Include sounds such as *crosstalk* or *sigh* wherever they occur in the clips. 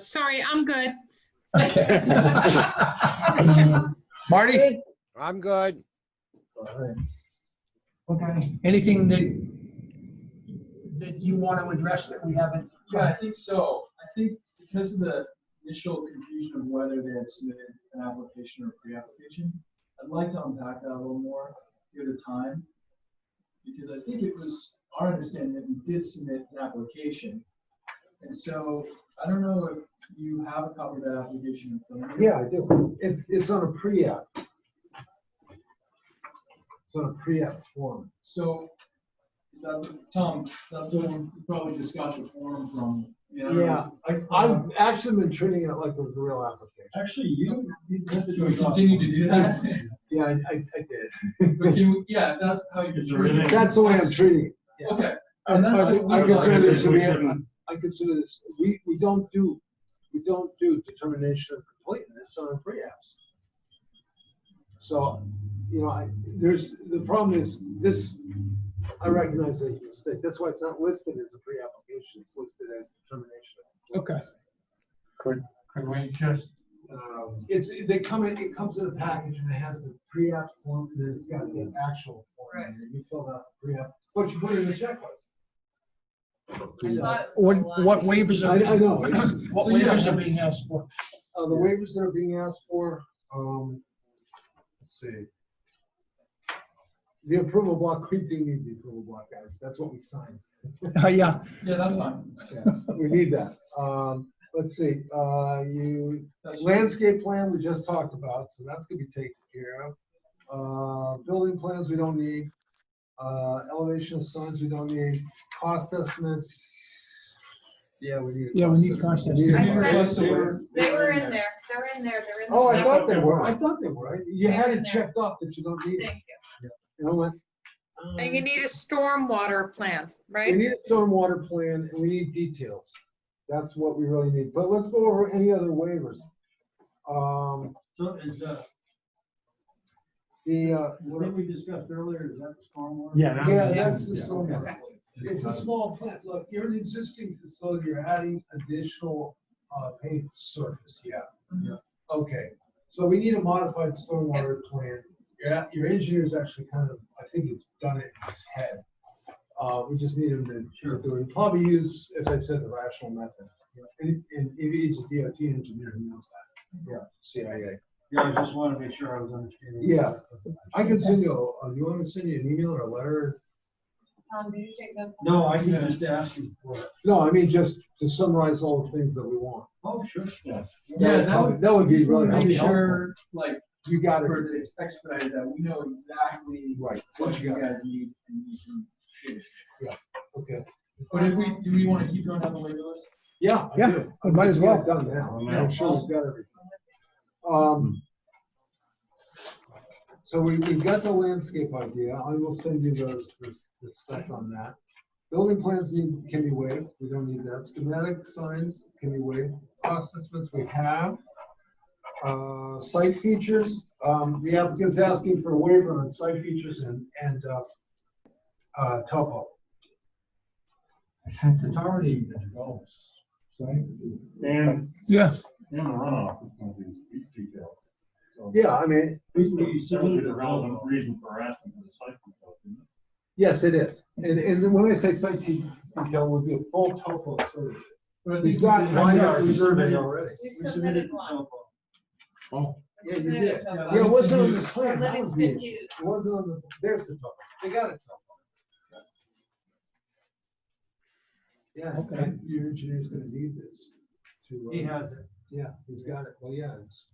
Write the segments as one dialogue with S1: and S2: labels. S1: Sorry, I'm good.
S2: *laughs*
S3: Marty?
S4: I'm good.
S3: Okay, anything that, that you want to address that we haven't?
S2: Yeah, I think so. I think because of the initial confusion of whether they had submitted an application or pre-application, I'd like to unpack that a little more here the time. Because I think it was our understanding that we did submit an application. And so I don't know if you have a copy of that application. in front of you.
S5: Yeah, I do. It's, it's on a pre-app. It's on a pre-app form.
S2: So is that, the- Tom, is that the one you probably just got your form from? you know?
S5: Yeah, I, I've actually been treating it like it was a real application.
S2: Actually, you, you continue to do that.
S5: Yeah, I, I I did.
S2: But can we, yeah, if that's how you.
S6: Is there
S5: *laughs*
S6: anything-
S5: That's the way I'm treating it. yeah.
S2: Okay,
S5: I
S2: and that's.
S5: I think-
S2: what
S5: I
S2: we
S5: consider
S2: like.
S5: this to
S6: We
S5: be, a-
S6: shouldn't-
S5: I consider this, we, we don't do, we don't do determination of completeness on pre-apps. So, you know, I, there's, the problem is this, I recognize that it's a mistake. That's why it's not listed as a pre-application. It's listed as determination. of
S3: Okay.
S5: completeness.
S6: Could we just,
S5: Um, It's, they come in, it comes in a package and it has the pre-app form and then it's got the actual form.
S7: Right.
S5: And you fill out the pre-app, what you put in the checklist.
S7: I thought it
S3: What,
S7: was a lot.
S3: what waivers
S5: I,
S3: are,
S5: I
S3: being-
S5: know. it's-
S3: what
S2: So, yeah,
S3: waivers are
S2: that's-
S3: being asked for?
S5: Uh, the waivers that are being asked for, um, let's see. The approval block, we do need the approval block, guys, that's what we signed,
S3: *laughs* Uh, Yeah,
S2: Yeah, that's fine.
S5: yeah, we need that. Um, let's see, uh, you,
S2: That's
S5: landscape plan we just talked about, so that's gonna be taken care of. Uh, building plans we don't need, uh, elevation of signs we don't need, cost estimates. Yeah, we need. a
S3: Yeah, we need cost
S5: We need a
S7: estimates. I
S5: cost
S2: Request
S7: said-
S2: order.
S7: They were in there, they were in there, they were in the.
S5: Oh, I
S7: chat.
S5: thought they were. I thought they were. I- You
S7: They
S5: had
S7: were
S5: it
S7: there.
S5: checked off that you don't need it.
S7: Thank you.
S5: And I went.
S7: And you need a stormwater plan,
S5: Um, We
S7: right?
S5: need a stormwater plan and we need details. That's what we really need. But let's go over any other waivers. Um,
S8: So is, uh,
S5: the, uh,
S8: what we discussed earlier, is that the stormwater?
S6: yeah. that
S5: yeah,
S6: was-
S5: that's the
S6: yeah.
S5: stormwater. It's a small plant. Look, you're an existing facility, you're adding additional, uh, paved surface, yeah.
S2: Yeah.
S5: Okay, so we need a modified stormwater plan. Your, your engineer's actually kind of, I think he's done it in his head. Uh, we just need him to, sure, do it. Probably use, as I said, the rational method. You know, And, and if he's a DOT engineer, he knows that. Yeah, CIA.
S8: Yeah, I just wanted to make sure I was understanding.
S5: Yeah. I can send you, uh, you want me to send you an email or a letter?
S7: Tom, did you take those?
S8: No, I can just ask you for it.
S5: No, I mean, just to summarize all the things that we want.
S8: Oh, sure. Yeah.
S2: Yeah, that would.
S5: That would be
S2: just wanna
S5: Oh, really
S2: Make
S5: helpful.
S2: sure, like,
S5: You got it.
S2: for it's expedited, that we know exactly
S5: Right,
S2: what you guys need and you can do.
S5: okay.
S2: But if we, do we wanna keep going down the waiver list?
S5: Yeah. I
S3: Yeah,
S5: do.
S3: we might as well.
S5: It's Done now.
S6: Yeah.
S5: Make sure we've got everything. Um, so we, we've got the landscape idea. I will send you those, the the spec on that. Building plans need, can be waived. We don't need that. Schematic signs can be waived. Cost estimates we have. Uh, site features, um, the applicant's asking for a waiver on site features and, and, uh, uh, topo.
S6: Since it's already developed, so. And,
S3: yeah.
S6: and the runoff is gonna be detailed. So
S5: Yeah, I mean,
S6: This would be certainly the relevant reason for asking for the site. plan, isn't it?
S5: Yes, it is. And, and then when I say site detail, would be a full topo survey.
S2: But I
S5: He's
S2: think
S5: got
S2: we did-
S5: one
S2: Yeah,
S5: hour
S2: we
S5: survey
S2: submitted-
S5: already.
S7: You
S8: We submitted
S7: submitted
S8: the
S7: one.
S8: topo.
S5: Yeah, you
S7: Submitted
S5: did.
S7: a topo.
S5: Yeah, it wasn't on the
S2: Livingston
S5: plan. That was the
S7: Livingston
S5: issue.
S7: Hughes.
S5: It wasn't on the, there's the topo. They got a topo. Yeah,
S3: Okay.
S5: your engineer's gonna need this to. uh,
S8: He has it.
S5: Yeah, he's got it. Well, yeah, it's.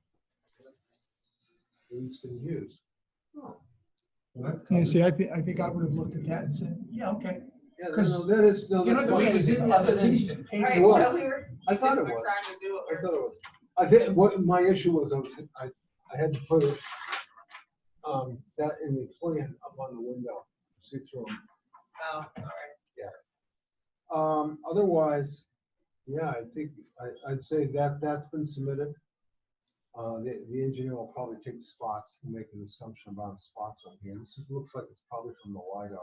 S5: Livingston Hughes. Oh. Well, that's-
S3: Yeah, see, I think, I think I would have looked at that and said, yeah, okay.
S5: Yeah, no,
S3: 'cause
S5: no, that is, no,
S3: You know,
S5: that's.
S3: the
S5: not-
S3: waivers didn't, other than.
S7: Right,
S5: It was.
S7: so we were.
S5: I thought it
S7: we were
S5: was.
S7: Trying to do what
S5: I
S7: we're.
S5: thought it was, I think what my issue was, I was, I, I had to put it, um, that in the plan up on the window, see through 'em.
S7: Oh, all right.
S5: Um, otherwise, yeah, I think, I, I'd say that, that's been submitted. Uh, the, the engineer will probably take the spots and make an assumption about the spots on here. This is- looks like it's probably from the LiDAR.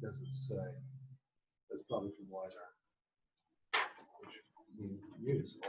S5: Doesn't say. It's probably from LiDAR. Which we use.